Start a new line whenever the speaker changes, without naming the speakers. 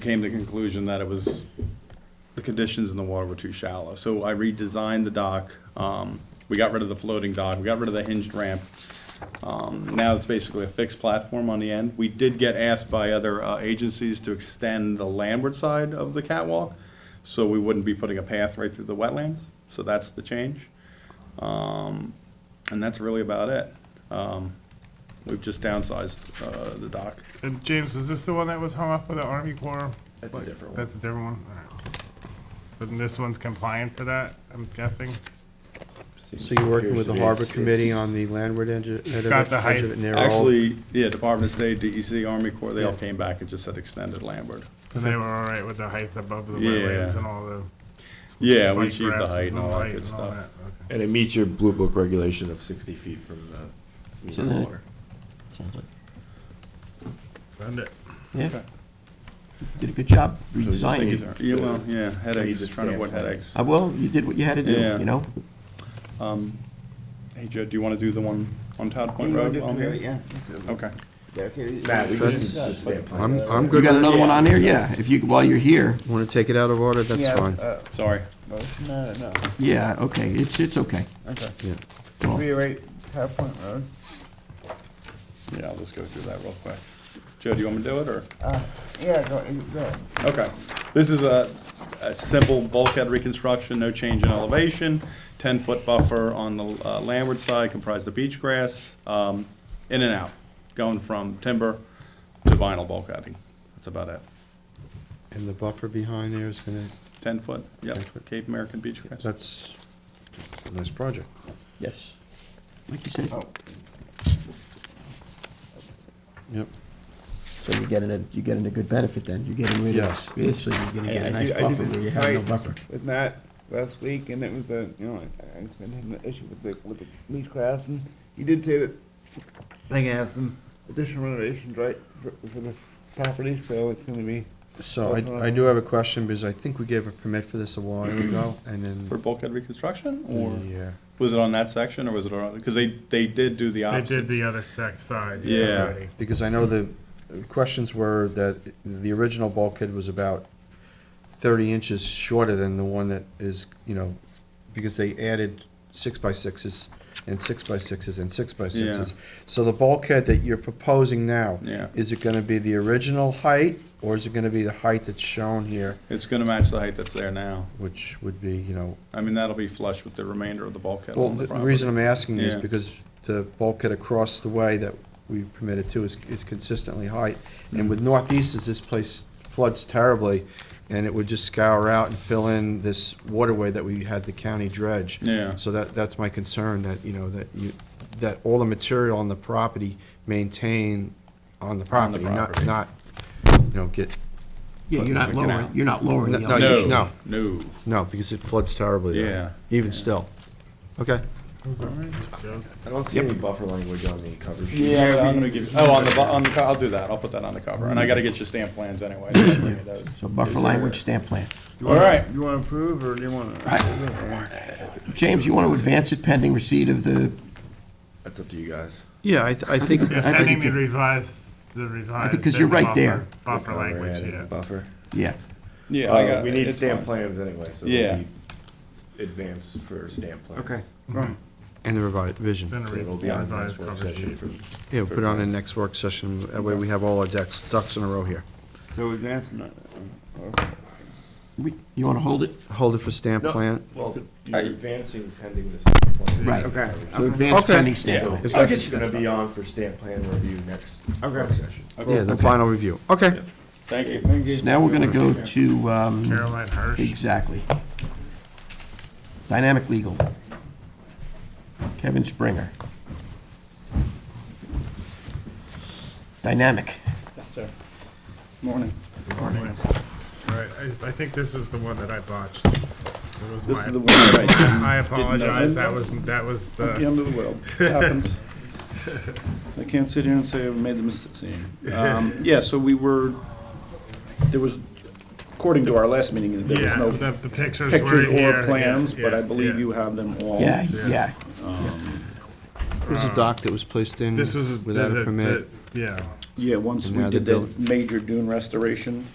came to the conclusion that it was, the conditions in the water were too shallow. So I redesigned the dock. Um, We got rid of the floating dock. We got rid of the hinged ramp. Um, Now it's basically a fixed platform on the end. We did get asked by other uh, agencies to extend the landward side of the catwalk, so we wouldn't be putting a path right through the wetlands. So that's the change. Um, And that's really about it. Um, We've just downsized uh, the dock.
And James, was this the one that was hung up with the Army Corps?
That's a
Like,
different one.
That's a different one? All right. But this one's compliant to that, I'm guessing?
So you're working with the harbor committee on the landward edge of edge
got
of it
the
edge of it
height.
near all?
Actually, yeah, Department of State, DEC, Army Corps, they all came back and just said extended landward.
And they were all right with the height above the
Yeah.
wetlands and all the. s-
Yeah, we
slight
achieved the
grasses
height and all that
height
good
and all
stuff.
that, okay.
And it meets your blue book regulation of sixty feet from the mean
So
of the
that-
water.
Sounds like-
Send it.
Yeah. Did a good job redesigning. it.
Yeah, well, yeah, headaches,
Need to
trying to avoid
stand.
headaches.
Uh, well, you did what you had to do,
Yeah.
you know?
Um, Hey, Joe, do you want to do the one on Todd Point Road? while I'm here? Okay.
Matt, we can just- just stay upon
I'm,
that.
I'm
You
good.
got another one on there? Yeah, if you, while you're here.
Want to take it out of order? That's fine.
uh,
Sorry.
No, no,
Yeah, okay, it's, it's okay.
okay.
Yeah.
Well-
Reiterate Top Point Road.
Yeah, I'll just go through that real quick. Joe, do you want me to do it, or?
Uh, yeah, go, go ahead.
Okay, this is a, a simple bulkhead reconstruction, no change in elevation, ten-foot buffer on the uh, landward side comprised of beach grass, um, in and out, going from timber to vinyl bulkheading, that's about it.
And the buffer behind there is gonna,
Ten-foot, yep,
10-foot.
Cape American beach grass.
that's a nice project.
Yes. Like you said,
Oh,
Yep.
so you're getting a, you're getting a good benefit then. You're getting rid
Yes.
of this, so you're gonna
Hey,
get
I
a
do-
nice
I do
buffer
the
where you have no
site.
buffer.
with Matt last week, and it was a, you know, I- I've been having an issue with the, with the beach grass, and you did say that they can have some additional renovations, right, for, for the property, so it's gonna be,
So I, I do have a question because I think we gave a permit for this a while ago and
For
then, uh,
bulkhead reconstruction, or
yeah.
was it on that section, or was it on, because they, they did do the
They
opposite.
did the other sex side.
Yeah.
already.
Because I know the questions were that the original bulkhead was about thirty inches shorter than the one that is, you know, because they added six by sixes and six by sixes and six by sixes. So the bulkhead that you're proposing now,
Yeah.
is it gonna be the original height, or is it gonna be the height that's shown here,
It's gonna match the height that's there now,
which would be, you know,
I mean, that'll be flush with the remainder of the bulkhead
well,
on the
the
property.
reason I'm asking is
Yeah.
because the bulkhead across the way that we permitted to is, is consistently high. And with northeast, as this place floods terribly, and it would just scour out and fill in this waterway that we had the county dredge.
Yeah.
So that, that's my concern, that, you know, that you, that all the material on the property maintain on the property, not,
property.
not, you know, get,
Yeah, you're not
Looking
lowering,
out.
you're not lowering the
No, you-
elevation.
no.
No,
no, because it floods terribly. there, Even still. Okay.
Those are just jokes.
I don't see any buffer language on the cover sheet.
Yeah, I'm gonna give, oh, on the, bu- on the, co- I'll do that, I'll put that on the cover, and I gotta get your stamp plans anyway. so I'll bring you those.
So buffer language, stamp plan.
All right,
you wanna approve, or do you wanna?
James, you want to advance it pending receipt of the,
That's up to you guys.
Yeah, I, th- I think,
Yeah,
I think
pending
it
the
could-
revised, the revised.
'cause you're right
buffer-
there.
Buffer
Cover
language,
added
yeah.
Buffer.
yeah,
yeah, I
Uh,
got.
we need
it's
stamp
fine.
plans anyway, so
Yeah.
we advance for stamp plans.
Okay.
and the revision.
Then a re-
It'll be on the
revised
next work
cover
session
sheet.
for
Yeah, put it on the next work session, that way we have all our ducks, ducks in a row here.
So advancing it, or?
We- you want to hold it?
Hold it for stamp
No.
plan.
Well, you're
Alright.
advancing pending the stamp plan.
Right.
Okay.
So advance
Okay.
pending stamp plan.
If
I'll
that's-
Gonna be on for stamp plan review next work session.
Yeah, the final review. Okay.
Thank you.
So Now we're gonna go to, um,
Caroline Hirsch.
exactly. Dynamic Legal. Kevin Springer. Dynamic.
Yes, sir. Morning.
Right, I, I think this was the one that I botched. It was
This is the
my,
one that
I
Didn't
apologize,
know.
that was, that was
I, the
the,
end of the world, It happens. I can't sit here and say I made the mistake. Um, Yeah, so we were, there was, according to our last meeting, there
yeah,
was
the
no
the pictures were
pictures
in here.
or plans,
yeah,
but I
yeah,
believe
yeah.
you have them all.
Yeah, yeah.
It was a dock that was placed in
This was. the-
without
the-
a permit.
the- Yeah,
Yeah, once
And
we
now
did
they're
the major dune restoration,